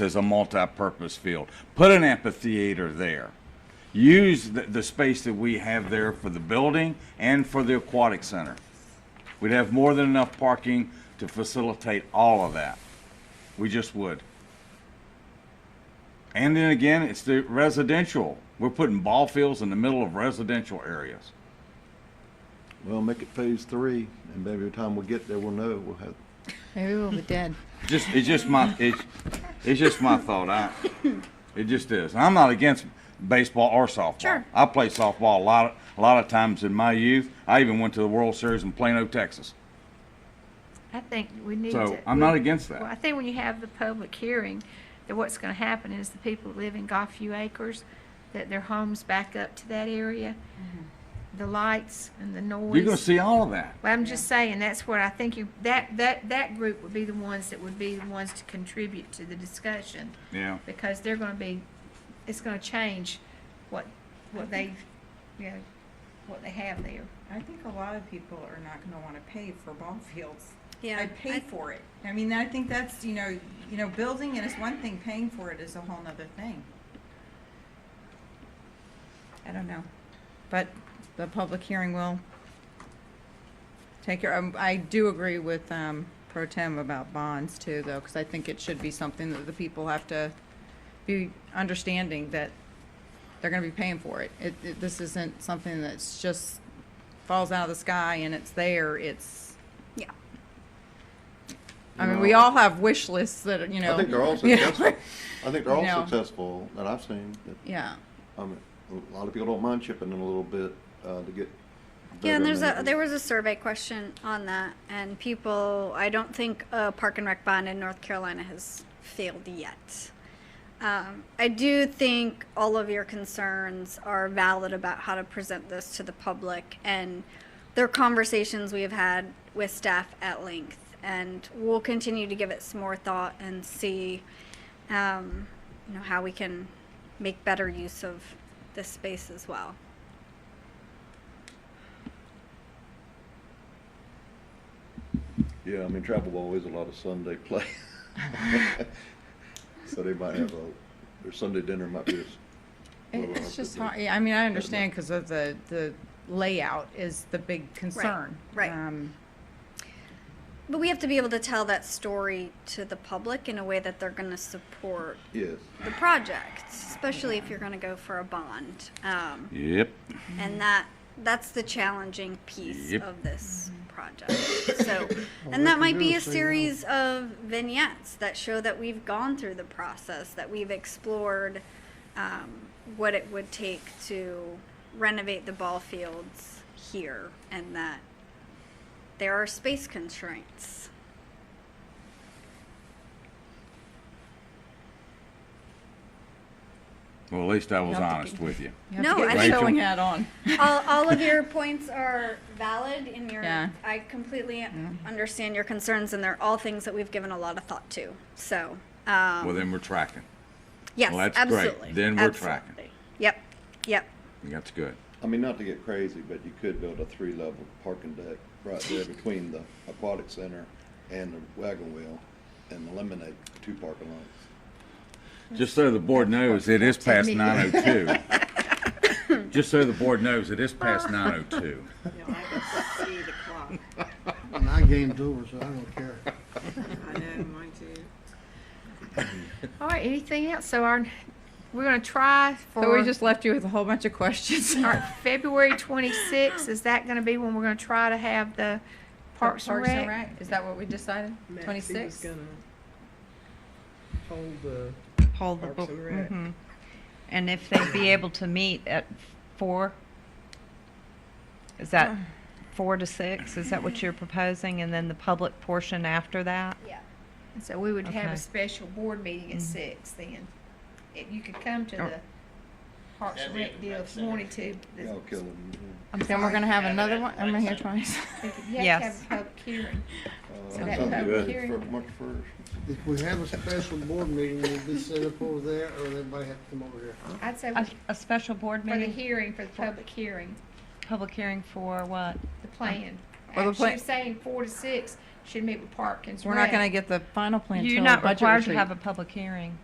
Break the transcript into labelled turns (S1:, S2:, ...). S1: as a multi-purpose field. Put an amphitheater there. Use the, the space that we have there for the building and for the aquatic center. We'd have more than enough parking to facilitate all of that. We just would. And then again, it's the residential. We're putting ball fields in the middle of residential areas.
S2: Well, make it phase three, and maybe by the time we get there, we'll know, we'll have,
S3: Maybe we'll be dead.
S1: Just it's just my it's, it's just my thought. I it just is. I'm not against baseball or softball.
S3: Sure.
S1: I played softball a lot a lot of times in my youth. I even went to the World Series in Plano, Texas.
S4: I think we need to.
S1: So I'm not against
S4: Well, I
S1: that.
S4: think when you have the public hearing, that what's gonna happen is the people that live in Gulfview Acres, that their homes back up to that area,
S5: Mm-hmm.
S4: the lights and the noise.
S1: You're gonna see all of that.
S4: Well, I'm just saying, that's what I think you, that, that, that group would be the ones that would be the ones to contribute to the discussion,
S1: Yeah.
S4: because they're gonna be, it's gonna change what, what they, you know, what they have there.
S6: I think a lot of people are not going to want to pay for ball fields.
S7: Yeah,
S6: I pay
S7: I-
S6: for it. I mean, I think that's you know, you know, building it is one thing, paying for it is a whole nother thing. I don't know,
S5: but the public hearing will take care, um, I do agree with, um, pro tem about bonds too, though, because I think it should be something that the people have to be understanding that they're gonna be paying for it. It, it, this isn't something that's just falls out of the sky and it's there, it's,
S7: Yeah.
S5: I mean, we all have wish lists that, are, you know.
S2: I think they're all
S5: you know,
S2: successful. I think they're
S5: You know.
S2: all successful that I've seen, that,
S5: Yeah,
S2: I mean, a lot of people don't mind chipping in a little bit, uh, to get.
S7: Yeah,
S2: better
S7: and there's a
S2: amenities.
S7: there was a survey question on that, and people. I don't think a park and rec bond in North Carolina has failed yet. Um, I do think all of your concerns are valid about how to present this to the public, and there are conversations we have had with staff at length, and we'll continue to give it some more thought and see, um, you know, how we can make better use of this space as well.
S2: Yeah, I mean, travel ball is a lot of Sunday play. So they might have a, their Sunday dinner might be. a
S5: It-
S2: little
S5: it's just
S2: different.
S5: hard, yeah, I mean, I understand because of the, the layout is the big concern.
S7: right.
S5: Um,
S7: But we have to be able to tell that story to the public in a way that they're going to support
S2: Yes,
S7: the project, especially if you're going to go for a bond. Um,
S1: Yep.
S7: and that that's the challenging piece
S1: Yep.
S7: of this project. So, and that might be a series of vignettes that show that we've gone through the process, that we've explored um, what it would take to renovate the ball fields here, and that there are space constraints.
S1: Well, at least I was
S5: Not the
S1: honest
S5: key.
S1: with you.
S5: you have to
S7: No,
S5: get
S7: I
S5: your
S1: think-
S5: Showing hat on.
S7: all, all of your points are valid and your
S5: Yeah.
S7: I completely understand your concerns and they're all things that we've given a lot of thought to. So um,
S1: Well, then we're tracking.
S7: yes,
S1: well, that's great.
S7: absolutely.
S1: Then we're
S7: absolutely.
S1: tracking.
S7: Yep. Yep.
S1: That's good.
S2: I mean, not to get crazy, but you could build a three-level parking deck right there between the aquatic center and the wagon wheel and eliminate two parking lots.
S1: Just so the board knows, it is past 9:02. Just so the board knows, it is past 9:02.
S6: you know, I can see the clock.
S8: And My game's over, so I don't care.
S6: I know, mine too.
S4: All right, anything else? So our, we're gonna try for.
S5: So we just left you with a whole bunch of questions.
S4: All right, February twenty-sixth, is that gonna be when we're gonna try to have the Parks and Rec?
S5: Is that what we decided? Twenty-six?
S8: Hold the.
S9: Hold the
S8: Parks
S9: book.
S8: and Rec.
S9: mhm. And if they'd be able to meet at four? Is that four to six? Is that what you're proposing? And then the public portion after that?
S7: Yeah.
S4: And So we would have
S9: Okay.
S4: a special board meeting
S5: Mm.
S4: at six then. If you could come to
S9: Or-
S4: the Parks and Rec deal if you wanted to. This-
S2: Y'all kill them.
S5: Then we're gonna have another one, I'm gonna hear twice.
S4: You have to have
S9: Yes.
S4: a public hearing.
S2: Uh,
S4: So that
S2: something
S4: public
S2: good
S4: hearing-
S2: for March first.
S8: If we have a special board meeting, will it be set up over there, or everybody have to come over here?
S4: I'd say
S9: A, a special board
S4: for the
S9: meeting,
S4: hearing, for the public hearing,
S9: public hearing for what?
S4: the plan.
S5: Well, the
S4: Uh,
S5: plan-
S4: She's saying four to six should meet with Parkins.
S5: We're not gonna get the final plan till
S9: You're
S5: budget
S9: not required to
S5: retreat.
S9: have a public hearing.